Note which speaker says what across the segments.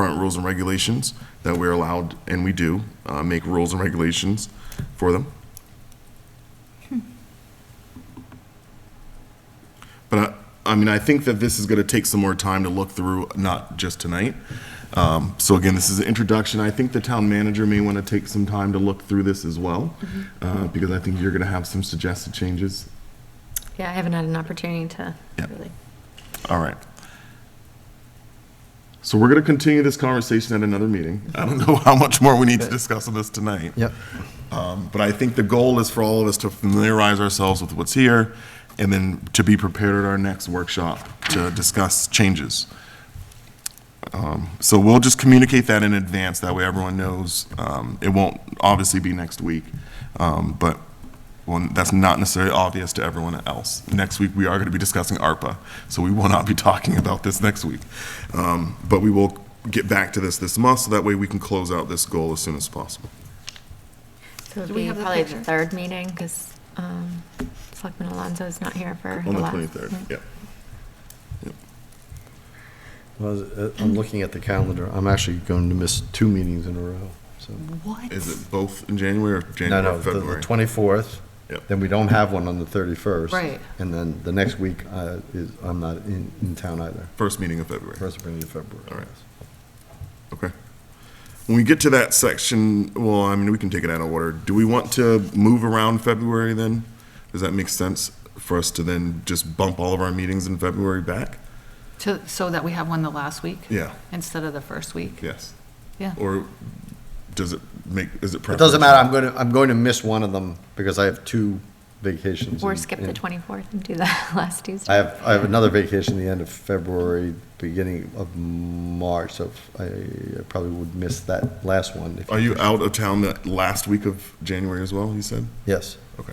Speaker 1: current rules and regulations that we're allowed, and we do, uh, make rules and regulations for them. But I, I mean, I think that this is going to take some more time to look through, not just tonight. Um, so again, this is an introduction. I think the town manager may want to take some time to look through this as well, uh, because I think you're going to have some suggested changes.
Speaker 2: Yeah, I haven't had an opportunity to
Speaker 1: Yeah.
Speaker 2: really.
Speaker 1: All right. So we're going to continue this conversation at another meeting. I don't know how much more we need to discuss on this tonight.
Speaker 3: Yep.
Speaker 1: Um, But I think the goal is for all of us to familiarize ourselves with what's here and then to be prepared at our next workshop to discuss changes. Um, So we'll just communicate that in advance, that way everyone knows. Um, It won't obviously be next week, um, but well, that's not necessarily obvious to everyone else. Next week, we are going to be discussing ARPA, so we will not be talking about this next week. Um, But we will get back to this this month, so that way we can close out this goal as soon as possible.
Speaker 2: So it'd
Speaker 4: we
Speaker 2: be
Speaker 4: have a
Speaker 2: probably the
Speaker 4: picture?
Speaker 2: third meeting because Selectman Alonso is not here for the
Speaker 1: On the
Speaker 2: last.
Speaker 1: 23rd, yep.
Speaker 3: Well, uh, I'm looking at the calendar. I'm actually going to miss two meetings in a row, so.
Speaker 4: What?
Speaker 1: Is it both in January or
Speaker 3: No,
Speaker 1: January
Speaker 3: no,
Speaker 1: or
Speaker 3: the- the
Speaker 1: February?
Speaker 3: 24th,
Speaker 1: Yep.
Speaker 3: then we don't have one on the 31st.
Speaker 4: Right.
Speaker 3: And then the next week uh, is, I'm not in, in town either,
Speaker 1: First meeting of February,
Speaker 3: first meeting in February.
Speaker 1: All right. okay. When we get to that section, well, I mean, we can take it out of order. Do we want to move around February then? Does that make sense for us to then just bump all of our meetings in February back?
Speaker 4: To, so that we have one the last week?
Speaker 1: Yeah.
Speaker 4: Instead of the first week?
Speaker 1: Yes.
Speaker 4: Yeah.
Speaker 1: Or does it make, is it
Speaker 3: It
Speaker 1: preferable?
Speaker 3: doesn't matter, I'm going to, I'm going to miss one of them because I have two vacations.
Speaker 2: Or
Speaker 3: in-
Speaker 2: skip the
Speaker 3: in-
Speaker 2: 24th and do that last Tuesday.
Speaker 3: I have, I have another vacation the end of February, beginning of March, so I probably would miss that last one. if-
Speaker 1: Are you out of town that last week of January as well, you said?
Speaker 3: Yes.
Speaker 1: Okay.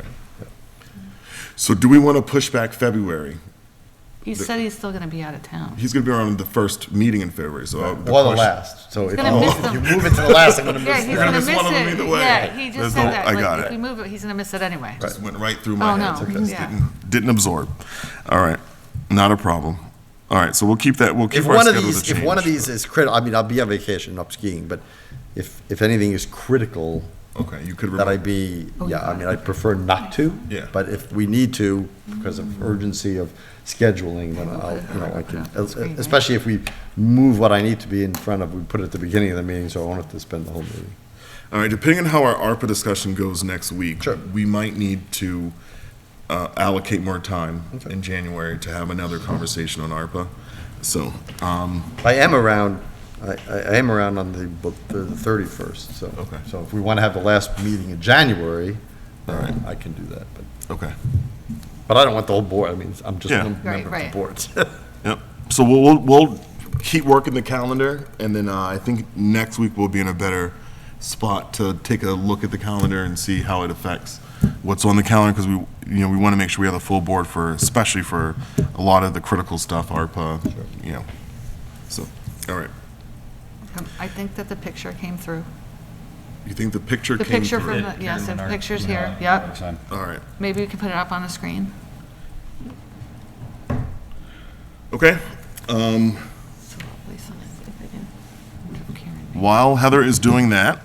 Speaker 1: So do we want to push back February?
Speaker 4: He said he's still gonna be out of town.
Speaker 1: He's going to be around the first meeting in February, so. uh,
Speaker 3: Or the
Speaker 1: question-
Speaker 3: last, so if you
Speaker 4: gonna miss them.
Speaker 3: you move it to the last, I'm going to
Speaker 4: Yeah,
Speaker 3: miss
Speaker 4: he's
Speaker 3: it.
Speaker 4: gonna
Speaker 1: gonna
Speaker 4: miss
Speaker 1: miss one of them
Speaker 4: it.
Speaker 1: either way.
Speaker 4: Yeah, he just
Speaker 1: There's
Speaker 4: said
Speaker 1: no-
Speaker 4: that.
Speaker 1: I
Speaker 4: like,
Speaker 1: got
Speaker 4: if
Speaker 1: it.
Speaker 4: we move it, he's gonna miss it anyway.
Speaker 1: Just went right through
Speaker 4: Oh,
Speaker 1: my
Speaker 4: no,
Speaker 1: head.
Speaker 4: yeah.
Speaker 1: Didn't- Didn't absorb. All right, not a problem. All right, so we'll keep that, we'll keep
Speaker 3: If
Speaker 1: our
Speaker 3: one of
Speaker 1: schedules a
Speaker 3: these,
Speaker 1: change.
Speaker 3: if one of these is critical, I mean, I'll be on vacation, not skiing, but if, if anything is critical,
Speaker 1: Okay, you could
Speaker 3: that I
Speaker 1: remove,
Speaker 3: be,
Speaker 4: Oh,
Speaker 3: yeah, I
Speaker 4: yeah.
Speaker 3: mean, I prefer not to.
Speaker 1: Yeah.
Speaker 3: But if we need to, because of urgency of scheduling, then I'll, you know, I can,
Speaker 4: That's great.
Speaker 3: especially if we move what I need to be in front of, we put it at the beginning of the meeting, so I won't have to spend the whole meeting.
Speaker 1: all right, depending on how our ARPA discussion goes next week.
Speaker 3: Sure.
Speaker 1: We might need to uh, allocate more time
Speaker 3: Okay.
Speaker 1: in January to have another conversation on ARPA. So, um,
Speaker 3: I am around, I, I I am around on the, bu- the thirty-first, so.
Speaker 1: Okay.
Speaker 3: So if we want to have the last meeting in January,
Speaker 1: All right.
Speaker 3: then I can do that, but,
Speaker 1: okay.
Speaker 3: but I don't want the whole board, I mean, I'm just
Speaker 1: Yeah.
Speaker 3: one
Speaker 1: Right,
Speaker 3: member of the
Speaker 4: right.
Speaker 3: board.
Speaker 1: Yep. So we'll, we'll, we'll keep working the calendar, and then uh, I think next week we'll be in a better spot to take a look at the calendar and see how it affects what's on the calendar, because we, you know, we want to make sure we have a full board for, especially for a lot of the critical stuff, ARPA, you know. So, all right.
Speaker 4: Um, I think that the picture came through.
Speaker 1: You think the picture
Speaker 4: The
Speaker 1: came
Speaker 4: picture
Speaker 1: through?
Speaker 4: from, the yes, the picture's here, yep.
Speaker 1: All right.
Speaker 4: Maybe we can put it up on the screen.
Speaker 1: Okay. Um,
Speaker 4: So at least I'll see if I can- wonder if Karen made-
Speaker 1: While Heather is doing that,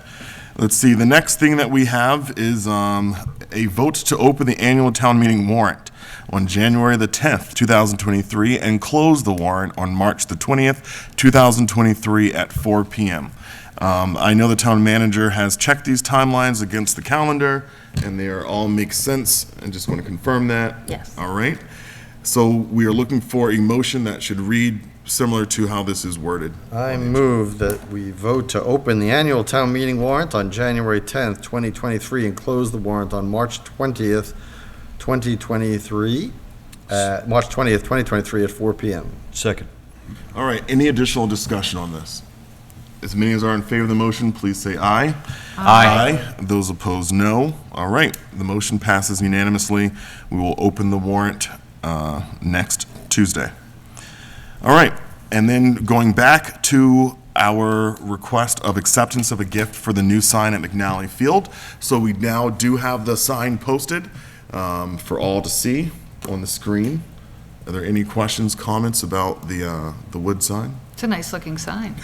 Speaker 1: let's see, the next thing that we have is um, a vote to open the annual town meeting warrant on January the 10th, 2023, and close the warrant on March the 20th, 2023, at 4 PM. Um, I know the town manager has checked these timelines against the calendar, and they are all make sense, and just want to confirm that.
Speaker 2: Yes.
Speaker 1: All right. So we are looking for a motion that should read similar to how this is worded.
Speaker 3: I move that we vote to open the annual town meeting warrant on January 10th, 2023, and close the warrant on March 20th, 2023, uh, March 20th, 2023 at 4 PM.
Speaker 5: Second.
Speaker 1: All right, any additional discussion on this? As many as are in favor of the motion, please say aye. Aye. Those opposed, no. All right, the motion passes unanimously. We will open the warrant uh, next Tuesday. All right, and then going back to our request of acceptance of a gift for the new sign at McNally Field. So we now do have the sign posted um, for all to see on the screen. Are there any questions, comments about the, uh, the wood sign?
Speaker 4: It's a nice-looking sign.